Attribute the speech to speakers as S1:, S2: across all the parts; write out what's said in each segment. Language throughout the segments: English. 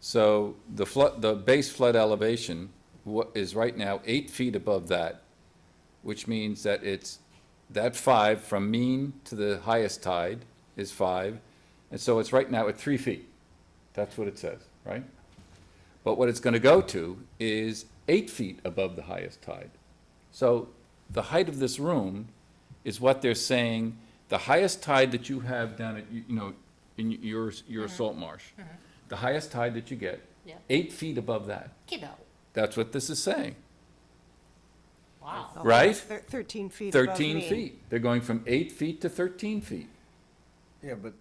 S1: So the flood, the base flood elevation wa- is right now eight feet above that, which means that it's, that five from mean to the highest tide is five. And so it's right now at three feet. That's what it says, right? But what it's gonna go to is eight feet above the highest tide. So the height of this room is what they're saying, the highest tide that you have down at, you you know, in your, your salt marsh, the highest tide that you get,
S2: Yeah.
S1: eight feet above that.
S2: Kiddo.
S1: That's what this is saying,
S2: Wow.
S1: Right?
S3: Thir- Thirteen feet above
S1: thirteen
S3: me.
S1: feet. They're going from eight feet to thirteen feet.
S4: Yeah, but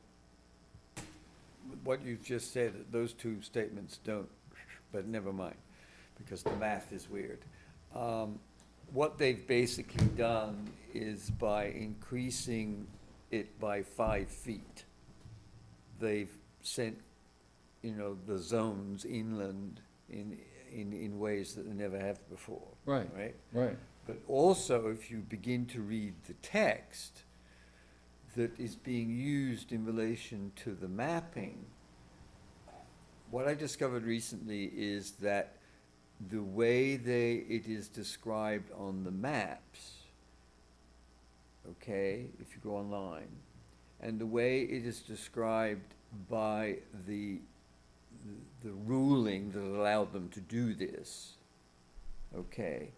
S4: what you've just said, those two statements don't, but never mind, because the math is weird. Um, What they've basically done is by increasing it by five feet, they've sent, you know, the zones inland in, in, in ways that they never have before.
S1: Right.
S4: Right?
S1: Right.
S4: But also, if you begin to read the text that is being used in relation to the mapping, what I discovered recently is that the way they, it is described on the maps, okay, if you go online, and the way it is described by the, the ruling that allowed them to do this, okay,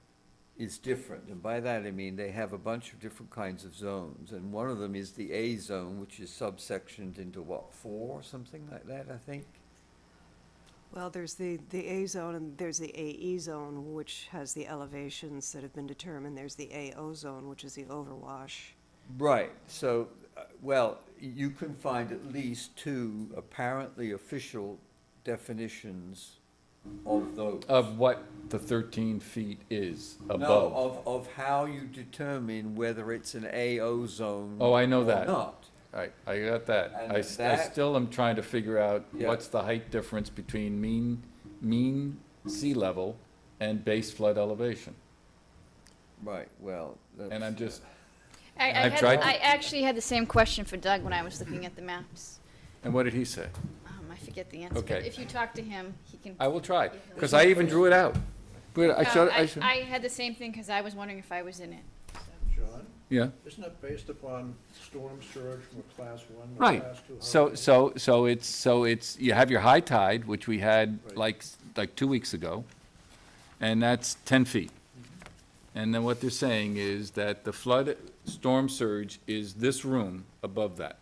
S4: is different. And by that I mean they have a bunch of different kinds of zones, and one of them is the A zone, which is subsectioned into what, four, something like that, I think?
S3: Well, there's the, the A zone and there's the AE zone, which has the elevations that have been determined. There's the AO zone, which is the overwash.
S4: Right, so, uh, well, you can find at least two apparently official definitions of those.
S1: Of what the thirteen feet is
S4: No,
S1: above.
S4: of, of how you determine whether it's an AO zone.
S1: Oh, I know
S4: or
S1: that.
S4: Not.
S1: I, I got that.
S4: And
S1: I, s- I
S4: that-
S1: still am trying to figure out
S4: Yeah.
S1: what's the height difference between mean, mean sea level and base flood elevation.
S4: Right, well.
S1: And I'm
S4: that's-
S1: just,
S2: I, I,
S1: I've
S2: had,
S1: tried to-
S2: I actually had the same question for Doug when I was looking at the maps.
S1: and what did he say?
S2: Um, I forget the answer. But
S1: Okay.
S2: if you talk to him, he can.
S1: I will try, because I even drew it out. But I
S2: Um,
S1: showed,
S2: I,
S1: I showed,
S2: I had the same thing because I was wondering if I was in it.
S5: John,
S1: yeah.
S5: isn't that based upon storm surge from a class one to a
S1: Right,
S5: class two?
S1: so,
S5: hurricane?
S1: so, so it's, so it's, you have your high tide, which we had
S5: Right.
S1: like, like two weeks ago, and that's ten feet. And then what they're saying is that the flood storm surge is this room above that.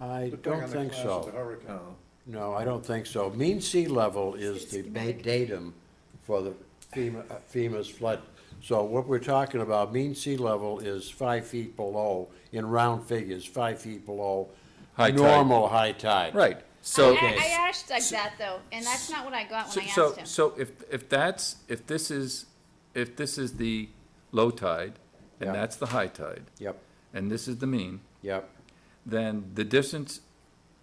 S6: I
S5: Depending
S6: don't
S5: on the
S6: think
S5: class of the
S6: so.
S5: hurricane.
S4: No.
S6: No, I don't think so. Mean sea level is the ba- datum for the FEMA, uh, FEMA's flood. So what we're talking about, mean sea level is five feet below, in round figures, five feet below
S1: High tide.
S6: normal high tide.
S1: Right, so.
S2: I, I asked Doug that though, and that's not what I got when
S1: So,
S2: I asked
S1: so,
S2: him.
S1: so if, if that's, if this is, if this is the low tide, and
S6: Yeah.
S1: that's the high tide,
S6: Yep,
S1: and this is the mean,
S6: yep.
S1: then the distance,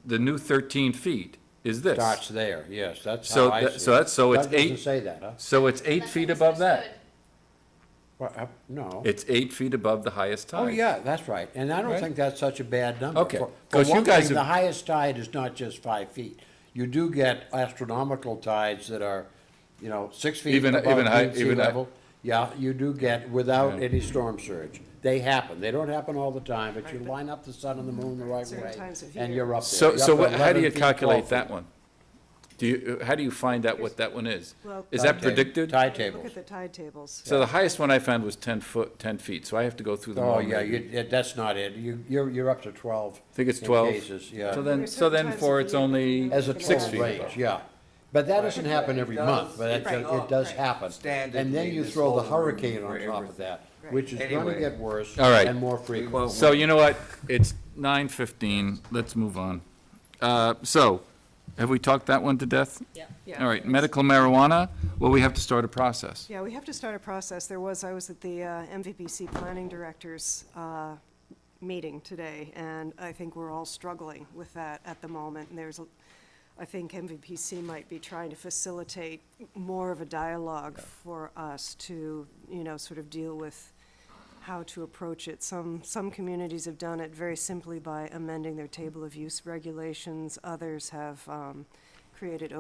S1: the new thirteen feet is this.
S6: Starts there, yes, that's
S1: So
S6: how I
S1: that-
S6: see it.
S1: so that's- so it's
S6: That
S1: eight-
S6: doesn't say that, huh?
S1: So it's eight
S2: That's
S1: feet
S2: what I
S1: above that.
S2: misunderstood.
S6: Well, uh, No.
S1: It's eight feet above the highest tide.
S6: Oh, yeah, that's right. And I don't
S1: Right.
S6: think that's such a bad number.
S1: Okay,
S6: For-
S1: 'cause you
S6: For one
S1: guys
S6: thing, the
S1: have-
S6: highest tide is not just five feet. You do get astronomical tides that are, you know, six feet
S1: Even-
S6: above
S1: even high-
S6: mean sea
S1: even high-
S6: level. Yeah, you do get without
S1: Yeah.
S6: any storm surge. They happen. They don't happen all the time, but you line up the sun and the moon the right
S3: Certain
S6: way.
S3: times of
S6: And
S3: year.
S6: you're up there.
S1: So,
S6: You're
S1: so
S6: up
S1: what-
S6: to
S1: how do
S6: 11
S1: you
S6: feet, 12
S1: calculate that
S6: feet.
S1: one? Do you, uh, how do you find out what that one is?
S3: Well-
S1: Is that
S6: Tide table-
S1: predicted?
S6: Tide
S3: Look
S6: tables.
S3: at the tide tables.
S1: So the highest one I found was ten foot, ten feet, so I have to go through them all.
S6: Oh, yeah,
S1: maybe.
S6: you, yeah, that's not it. You, you're, you're up to twelve.
S1: I think it's
S6: in
S1: twelve.
S6: cases, yeah.
S1: So
S3: There
S1: then,
S3: are
S1: so
S3: certain
S1: then
S3: times
S1: for
S3: of
S1: it's
S3: the year
S1: only
S3: when
S6: As a
S1: six
S6: total
S1: feet.
S6: range, yeah. But that doesn't happen every
S4: It
S6: month, but
S4: does-
S6: it, it does happen.
S4: Standard
S6: And then
S4: in
S6: you
S4: this
S6: throw the
S4: whole room
S6: hurricane
S4: for
S6: on top
S4: everything.
S6: of that, which is gonna
S4: Anyway.
S6: get worse
S1: All right.
S6: and more
S4: We
S6: frequent.
S4: won't-
S1: So you know what? It's nine fifteen. Let's move on. Uh, so, have we talked that one to death?
S3: Yeah.
S1: All right, medical marijuana, well, we have to start a process.
S3: Yeah, we have to start a process. There was, I was at the uh, MVPC Planning Directors uh, meeting today, and I think we're all struggling with that at the moment. And there's, a- I think MVPC might be trying to facilitate more of a dialogue for us to, you know, sort of deal with how to approach it. Some, some communities have done it very simply by amending their table of use regulations. Others have um, created